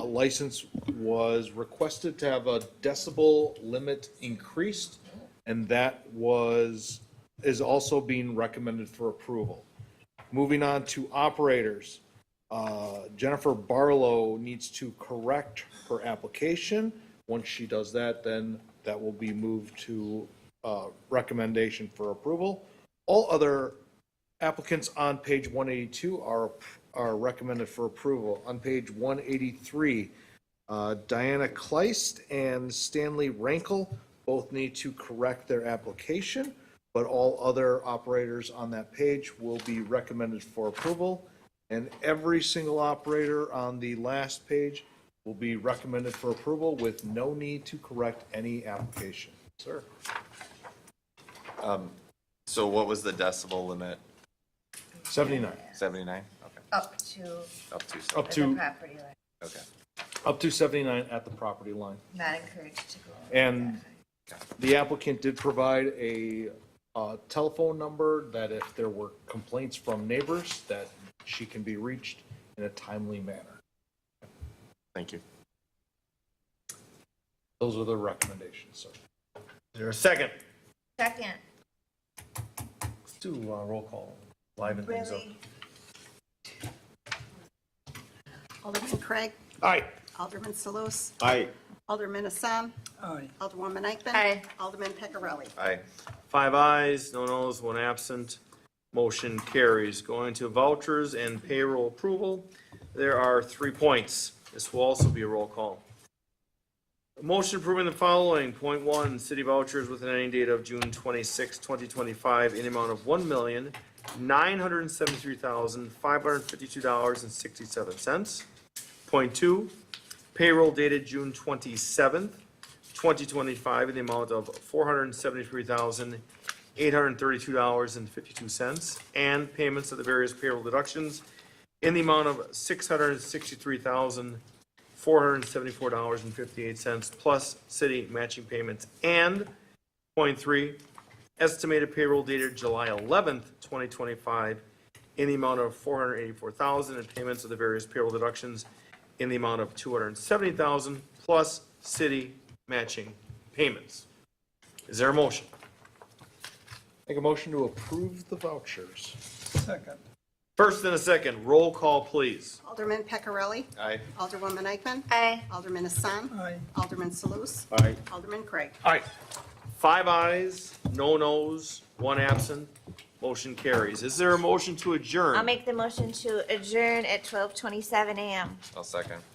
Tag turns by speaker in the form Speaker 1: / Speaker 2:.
Speaker 1: license was requested to have a decibel limit increased, and that was, is also being recommended for approval. Moving on to operators, uh, Jennifer Barlow needs to correct her application. Once she does that, then that will be moved to uh, recommendation for approval. All other applicants on page 182 are, are recommended for approval. On page 183, uh, Diana Kleist and Stanley Rankle both need to correct their application, but all other operators on that page will be recommended for approval. And every single operator on the last page will be recommended for approval with no need to correct any application. Sir?
Speaker 2: So what was the decibel limit?
Speaker 1: 79,
Speaker 2: Seventy-nine? Okay,
Speaker 3: Up to
Speaker 2: up to,
Speaker 1: up
Speaker 2: seventy.
Speaker 3: the
Speaker 1: to,
Speaker 3: property line,
Speaker 2: okay.
Speaker 1: up to 79 at the property line.
Speaker 3: not encouraged to go. over
Speaker 1: And-
Speaker 3: that.
Speaker 1: The applicant did provide a uh, telephone number that if there were complaints from neighbors, that she can be reached in a timely manner.
Speaker 2: Thank you.
Speaker 1: Those are the recommendations, sir.
Speaker 4: Is there a second?
Speaker 3: Second,
Speaker 4: Let's do uh, roll call, liven things up.
Speaker 3: really,
Speaker 5: Alderman Craig.
Speaker 4: Aye.
Speaker 5: Alderman Salus.
Speaker 4: Aye.
Speaker 5: Alderman Assam. Alderwoman Eichman.
Speaker 3: Aye.
Speaker 5: Alderman Peccarelli.
Speaker 2: Aye.
Speaker 4: Five ayes, no noes, one absent. Motion carries. Going to vouchers and payroll approval. There are three points. This will also be a roll call. Motion approving the following. Point one, city vouchers with an ending date of June 26, 2025, in amount of one million, nine hundred and seventy-three thousand, five hundred and fifty-two dollars and sixty-seven cents. Point two, payroll dated June 27th, 2025, in the amount of $473,832.52, and payments of the various payroll deductions in the amount of $663,474.58, plus city matching payments. And point three, estimated payroll dated July 11th, 2025, in the amount of 484,000 and payments of the various payroll deductions in the amount of 270,000 plus city matching payments. Is there a motion?
Speaker 1: Make a motion to approve the vouchers.
Speaker 4: First and a second, roll call, please.
Speaker 5: Alderman Peccarelli.
Speaker 2: Aye.
Speaker 5: Alderwoman Eichman.
Speaker 3: aye,
Speaker 5: Alderman Assam. Alderman Salus.
Speaker 4: Aye.
Speaker 5: Alderman Craig.
Speaker 4: Aye. Five ayes, no nos, one absent. Motion carries. Is there a motion to adjourn?
Speaker 6: I'll make the motion to adjourn at twelve twenty-seven AM.
Speaker 2: I'll second.